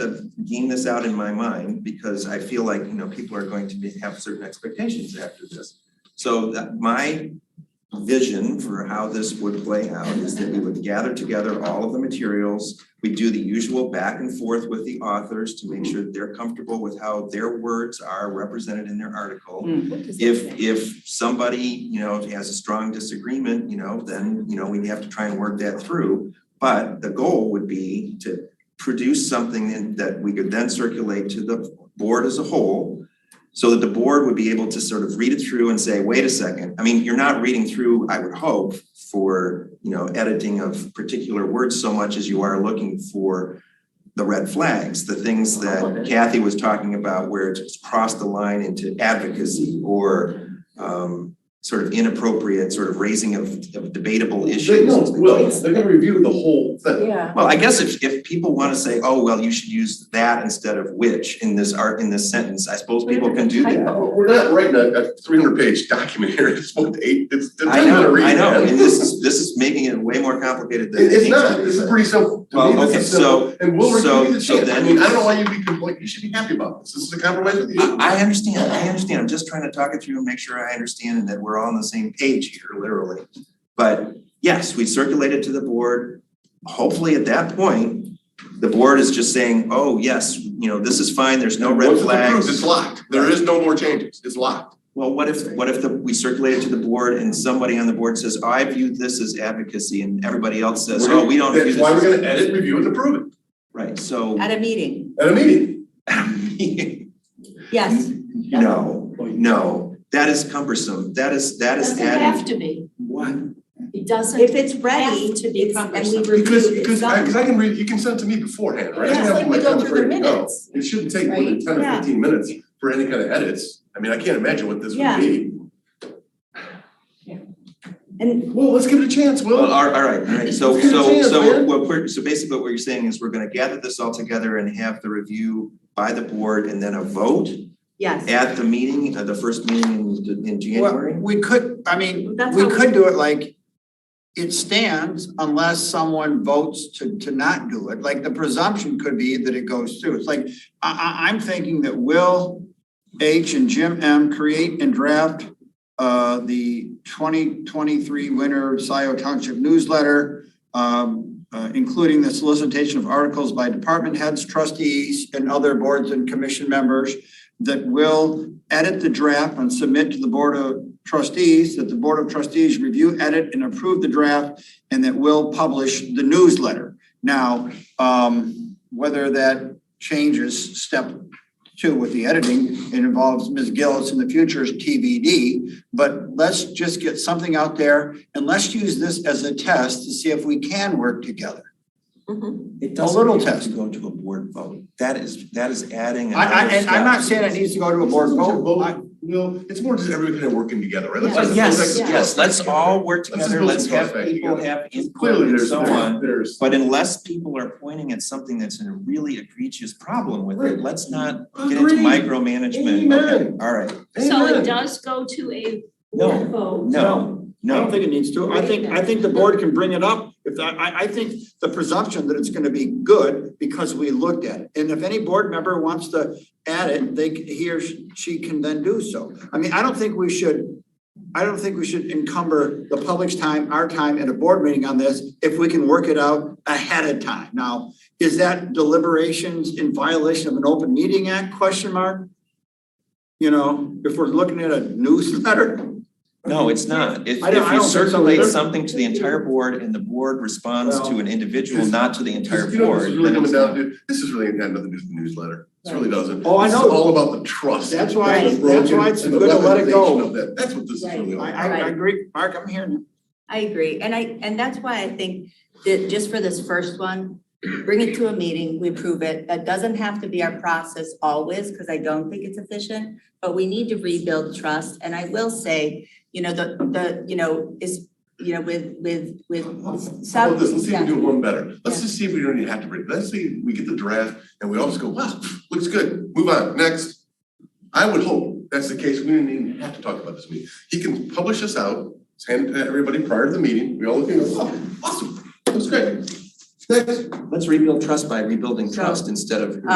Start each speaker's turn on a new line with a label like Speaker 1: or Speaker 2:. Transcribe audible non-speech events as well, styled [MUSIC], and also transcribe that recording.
Speaker 1: to game this out in my mind because I feel like, you know, people are going to be, have certain expectations after this. So that my vision for how this would play out is that we would gather together all of the materials. We do the usual back and forth with the authors to make sure that they're comfortable with how their words are represented in their article. If if somebody, you know, has a strong disagreement, you know, then, you know, we have to try and work that through. But the goal would be to produce something in- that we could then circulate to the board as a whole. So that the board would be able to sort of read it through and say, wait a second, I mean, you're not reading through, I would hope, for, you know, editing of particular words so much as you are looking for the red flags, the things that Kathy was talking about where it's crossed the line into advocacy or um, sort of inappropriate, sort of raising of, of debatable
Speaker 2: They
Speaker 1: issues.
Speaker 2: no, well, they're gonna review the whole thing.
Speaker 3: Yeah,
Speaker 1: Well, I guess if, if people wanna say, oh, well, you should use that instead of which in this art, in this sentence, I suppose people can do that.
Speaker 2: We're we're not writing a, a three hundred page document here, [LAUGHS] it's one to eight, it's, it's
Speaker 1: I
Speaker 2: not gonna
Speaker 1: know,
Speaker 2: read
Speaker 1: I know,
Speaker 2: that.
Speaker 1: and this is, this is making it way more complicated than.
Speaker 2: It-
Speaker 1: it
Speaker 2: it's
Speaker 1: needs to
Speaker 2: not,
Speaker 1: be.
Speaker 2: this is pretty simple, to
Speaker 1: Well,
Speaker 2: me, this
Speaker 1: okay,
Speaker 2: is simple, and we'll
Speaker 1: so-
Speaker 2: review the
Speaker 1: so
Speaker 2: chance, I
Speaker 1: then-
Speaker 2: mean, I don't know why you'd be complaining, you should be happy about this, this is a compromise with you.
Speaker 1: I, I understand, I understand, I'm just trying to talk it through and make sure I understand and that we're all on the same page here, literally. But yes, we circulate it to the board. Hopefully at that point, the board is just saying, oh, yes, you know, this is fine, there's no red
Speaker 2: Once it's approved,
Speaker 1: flags.
Speaker 2: it's locked, there is no more changes, it's locked.
Speaker 1: Well, what if, what if the, we circulate it to the board and somebody on the board says, "Oh, I view this as advocacy and everybody else says,
Speaker 2: We're
Speaker 1: oh, we don't view this.
Speaker 2: That's why
Speaker 1: as-"
Speaker 2: we're gonna edit, review and approve it,
Speaker 1: Right, so.
Speaker 4: At a meeting,
Speaker 2: at a meeting,
Speaker 4: yes.
Speaker 1: No, no, that is cumbersome, that is, that is
Speaker 5: Doesn't have
Speaker 1: adding,
Speaker 5: to be,
Speaker 1: what?
Speaker 5: it doesn't.
Speaker 4: If it's ready,
Speaker 5: Has to be
Speaker 4: it's, and
Speaker 5: cumbersome.
Speaker 4: we review
Speaker 2: because,
Speaker 4: it, it's
Speaker 2: because, I,
Speaker 4: done.
Speaker 2: cause I can read, you can send it to me beforehand, right? I
Speaker 5: Yeah,
Speaker 2: can
Speaker 5: it's
Speaker 2: have
Speaker 5: like we
Speaker 2: my
Speaker 5: go
Speaker 2: comments
Speaker 5: through the
Speaker 2: ready to go.
Speaker 5: minutes.
Speaker 2: It shouldn't take more than ten or
Speaker 4: Yeah.
Speaker 2: fifteen minutes for any kind of edits, I mean, I can't imagine what this would
Speaker 4: Yeah.
Speaker 2: be.
Speaker 4: And
Speaker 2: Well, let's give it a chance, Will.
Speaker 1: Well, all right, all right, all right, so,
Speaker 2: It's
Speaker 1: so,
Speaker 2: gonna
Speaker 1: so
Speaker 2: change,
Speaker 1: what we're, so basically what you're saying is we're gonna gather this all together and have the review by the board and then a vote
Speaker 4: yes,
Speaker 1: at the meeting, uh, the first meeting in, in
Speaker 6: Well,
Speaker 1: January?
Speaker 6: we could, I mean,
Speaker 4: That's
Speaker 6: we
Speaker 4: how-
Speaker 6: could do it like, it stands unless someone votes to, to not do it. Like, the presumption could be that it goes through. It's like, I, I, I'm thinking that Will H. and Jim M. create and draft uh, the twenty twenty-three winter Scioto Township newsletter, um, uh, including the solicitation of articles by department heads, trustees, and other boards and commission members that will edit the draft and submit to the Board of Trustees, that the Board of Trustees review, edit, and approve the draft, and that will publish the newsletter. Now, um, whether that changes step two with the editing, it involves Ms. Gillis in the future is TBD, but let's just get something out there and let's use this as a test to see if we can work together.
Speaker 1: It
Speaker 6: doesn't little have to test.
Speaker 1: go to a board vote, that is, that is adding
Speaker 6: I, I, and I'm not saying it needs to go to a board vote. I-
Speaker 2: Will, it's more just everybody kind of working together, right? Let's
Speaker 5: Yeah.
Speaker 2: just-
Speaker 1: Yes,
Speaker 2: let's just-
Speaker 1: yes, let's all work
Speaker 2: Let's just
Speaker 1: together,
Speaker 2: build
Speaker 1: let's
Speaker 2: some
Speaker 1: have
Speaker 2: trust back
Speaker 1: people
Speaker 2: together.
Speaker 1: have input
Speaker 2: Clearly,
Speaker 1: and
Speaker 2: there's,
Speaker 1: so on.
Speaker 2: there's,
Speaker 1: But unless people are pointing at something that's a really egregious problem with
Speaker 2: Right.
Speaker 1: it, let's not get into
Speaker 2: Agreed.
Speaker 1: micromanagement, okay,
Speaker 2: Amen.
Speaker 1: all right,
Speaker 5: So it
Speaker 2: Amen.
Speaker 5: does go to a
Speaker 1: No,
Speaker 5: vote.
Speaker 1: no,
Speaker 6: I
Speaker 1: no.
Speaker 6: don't think it needs to. I think, I think the board can bring it up. If that, I, I think the presumption that it's gonna be good because we looked at it. And if any board member wants to add it, they, c- he or she can then do so. I mean, I don't think we should, I don't think we should encumber the public's time, our time at a board meeting on this if we can work it out ahead of time. Now, is that deliberations in violation of an open meeting act question mark? You know, if we're looking at a newsletter,
Speaker 1: No, it's not. If,
Speaker 6: I
Speaker 1: if you
Speaker 6: don't- I don't think so
Speaker 1: circulate
Speaker 6: either.
Speaker 1: something to the entire board and the board responds to
Speaker 6: Well,
Speaker 1: an individual,
Speaker 2: this-
Speaker 1: not to the entire
Speaker 2: you know,
Speaker 1: board,
Speaker 2: this is really
Speaker 1: then
Speaker 2: coming
Speaker 1: it's
Speaker 2: down
Speaker 1: not.
Speaker 2: to, this is really got nothing to do with the newsletter, this really doesn't.
Speaker 6: Oh, I
Speaker 2: This is
Speaker 6: know.
Speaker 2: all about the trust.
Speaker 6: That's why-
Speaker 2: and the
Speaker 6: that's
Speaker 2: broken-
Speaker 6: why it's
Speaker 2: and the
Speaker 6: good to let it go.
Speaker 2: weaponization of that. That's what this is
Speaker 5: Right.
Speaker 2: really all
Speaker 6: I,
Speaker 2: about.
Speaker 6: I, I agree. Mark, I'm hearing you.
Speaker 4: I agree. And I, and that's why I think that just for this first one, bring it to a meeting, we approve it. That doesn't have to be our process always, because I don't think it's efficient, but we need to rebuild trust. And I will say, you know, the, the, you know, is, you know, with, with, with
Speaker 2: How about this, let's see
Speaker 4: some,
Speaker 2: if we
Speaker 4: yeah,
Speaker 2: do one better, let's
Speaker 4: Yeah.
Speaker 2: just see if we don't even have to bring, let's see, we get the draft and we all just go, wow, looks good, move on, next. I would hope that's the case, we didn't even have to talk about this meeting, he can publish this out, send it to everybody prior to the meeting, we all look and go, oh, awesome, looks great. Next.
Speaker 1: Let's rebuild trust by rebuilding
Speaker 4: So-
Speaker 1: trust instead of